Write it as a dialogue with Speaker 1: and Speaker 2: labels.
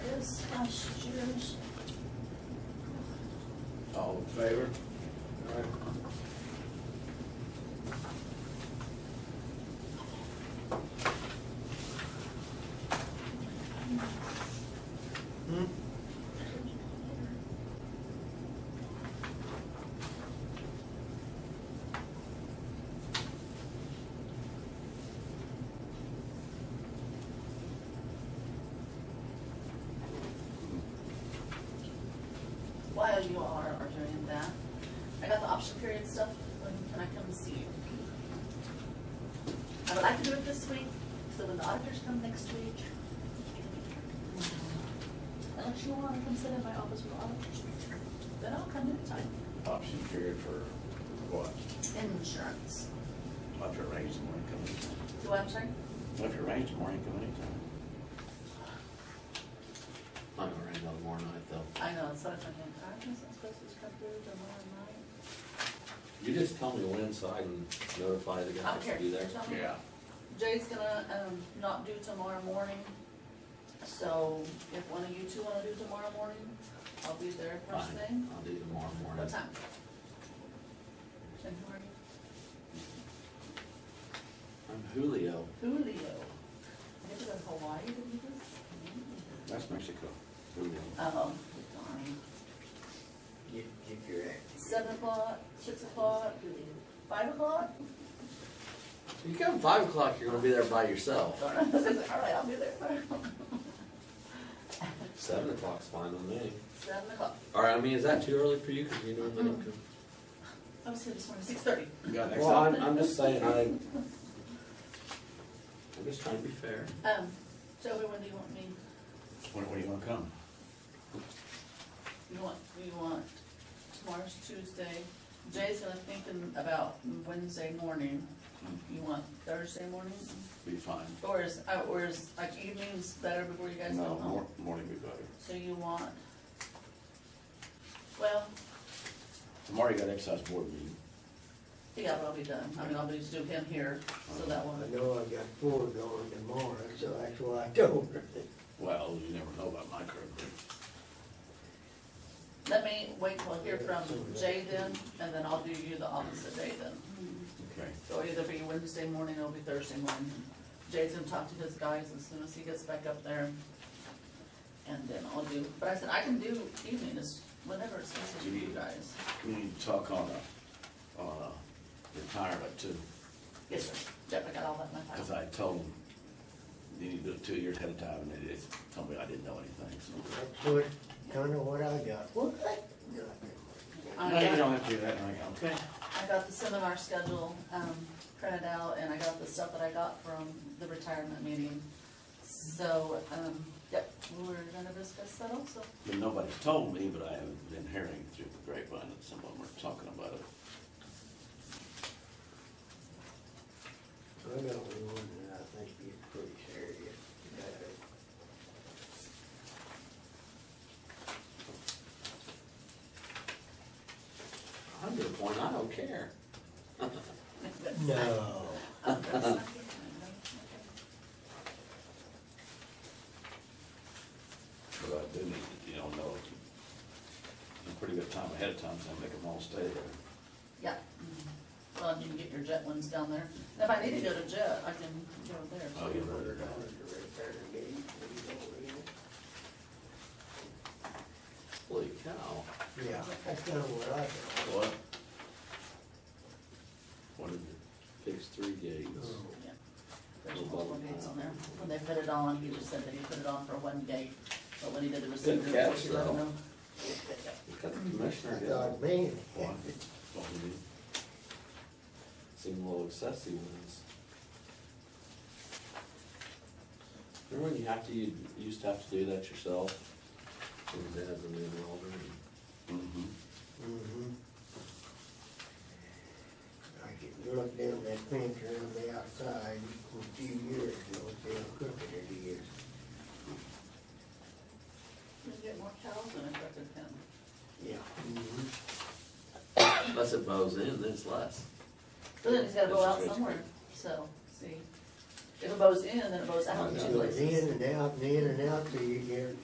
Speaker 1: uh, seconds.
Speaker 2: All in favor?
Speaker 1: While you all are are doing that, I got the option period stuff, when can I come and see you? I would like to do it this week, so when the auditors come next week. Unless you wanna come sit in my office with auditors, then I'll come anytime.
Speaker 2: Option period for what?
Speaker 1: Insurance.
Speaker 2: If it rains tomorrow, you come anytime.
Speaker 1: Do I'm sorry?
Speaker 2: If it rains tomorrow, you come anytime.
Speaker 3: I'm gonna rain out tomorrow night though.
Speaker 1: I know, it's such a, I was supposed to come through tomorrow night.
Speaker 3: You just tell me when so I can notify the guys
Speaker 1: Okay.
Speaker 3: to be there.
Speaker 2: Yeah.
Speaker 1: Jay's gonna, um, not do tomorrow morning, so if one of you two wanna do tomorrow morning, I'll be there first
Speaker 3: Fine.
Speaker 1: thing.
Speaker 3: I'll do tomorrow morning.
Speaker 1: What time? And who
Speaker 3: I'm Julio.
Speaker 1: are you? Julio. You to go to Hawaii to do this?
Speaker 2: That's Mexico. Julio.
Speaker 1: Oh, darn.
Speaker 4: Get, get your act.
Speaker 1: Seven o'clock, six o'clock, five o'clock?
Speaker 3: You come five o'clock, you're gonna be there by yourself.
Speaker 1: Darn, I was like, all right, I'll be there.
Speaker 3: Seven o'clock's fine with me.
Speaker 1: Seven o'clock.
Speaker 3: All right, I mean, is that too early for you? Cause you normally don't come.
Speaker 1: I was here this morning, six thirty.
Speaker 2: You got next
Speaker 3: Mm-hmm. Well,
Speaker 2: up?
Speaker 3: I'm, I'm just saying, I. I'm just trying to be fair.
Speaker 1: Um, Joey, when do you want me?
Speaker 2: When, when do you wanna come?
Speaker 1: You want, you want, tomorrow's Tuesday, Jay's gonna thinking about Wednesday morning, you want Thursday morning?
Speaker 2: Be fine.
Speaker 1: Or is, uh, or is, like evenings better before you guys go
Speaker 2: No,
Speaker 1: home?
Speaker 2: mor- morning be better.
Speaker 1: So you want, well,
Speaker 2: Tomorrow you got excise board meeting.
Speaker 1: yeah, but I'll be done, I mean, I'll just do him here, so that
Speaker 4: I
Speaker 1: one,
Speaker 4: know I got four going tomorrow, so that's why I told her.
Speaker 2: Well, you never know about my current.
Speaker 1: let me wait till I hear from Jay then, and then I'll do you the opposite day then.
Speaker 2: Okay.
Speaker 1: So it'll either be Wednesday morning, or it'll be Thursday morning. Jay's gonna talk to his guys as soon as he gets back up there. And then I'll do, but I said, I can do evening, it's whenever it's easy for you guys.
Speaker 2: We need to talk on, uh, on, uh, retirement too,
Speaker 1: Yes, sir. Yep, I got all that in my
Speaker 2: cause
Speaker 1: file.
Speaker 2: I told them, you need to do it two years ahead of time, and they just told me I didn't know anything, so.
Speaker 4: That's what, kinda what I got. What?
Speaker 1: I
Speaker 2: No,
Speaker 1: got-
Speaker 2: you don't have to do that, I go, okay.
Speaker 1: I got the seminar schedule, um, printed out, and I got the stuff that I got from the retirement meeting. So, um, yep, we're gonna discuss that also.
Speaker 2: But nobody's told me, but I have been hearing through the grapevine that some of them are talking about it.
Speaker 4: I got one that I think is pretty serious. Uh,
Speaker 3: I'm to the point, I don't care.
Speaker 4: No.
Speaker 1: Oh,
Speaker 2: But I do need to, you know, know a pretty good time ahead of time, so I make them all stay there.
Speaker 1: Yeah. Mm-hmm. Well, you can get your jet ones down there. If I need to go to jet, I can go there.
Speaker 2: Oh, you better
Speaker 4: Hundred
Speaker 2: go.
Speaker 4: dollars to repair the gate, we don't
Speaker 3: Holy cow.
Speaker 4: really- Yeah, that's kinda what I got.
Speaker 2: What? What is it?
Speaker 3: Fix three gates.
Speaker 4: Oh.
Speaker 1: Yeah. There's multiple gates on there. When they put it on, he just said that he put it on for one gate, but when he did the receiver,
Speaker 3: Good
Speaker 1: of
Speaker 3: catch,
Speaker 1: course, he let him
Speaker 3: though.
Speaker 1: know.
Speaker 3: You got the commissioner
Speaker 4: I
Speaker 3: down.
Speaker 4: thought, man.
Speaker 2: What? What we need?
Speaker 3: Seem a little excessive when it's. Remember when you have to, you used to have to do that yourself? When Dad was an elder and
Speaker 2: Mm-hmm.
Speaker 4: Mhm. I could look down that fence around the outside a few years ago, they were crooked it is.
Speaker 1: You can get more cows than I expected him.
Speaker 4: Yeah. Mm-hmm.
Speaker 3: unless it bows in, then it's less.
Speaker 1: But then he's gotta go
Speaker 3: That's
Speaker 1: out
Speaker 3: crazy.
Speaker 1: somewhere, so, see. If it bows in, then it bows out in
Speaker 4: It
Speaker 1: two
Speaker 4: goes
Speaker 1: places.
Speaker 4: in and out and in and out till you get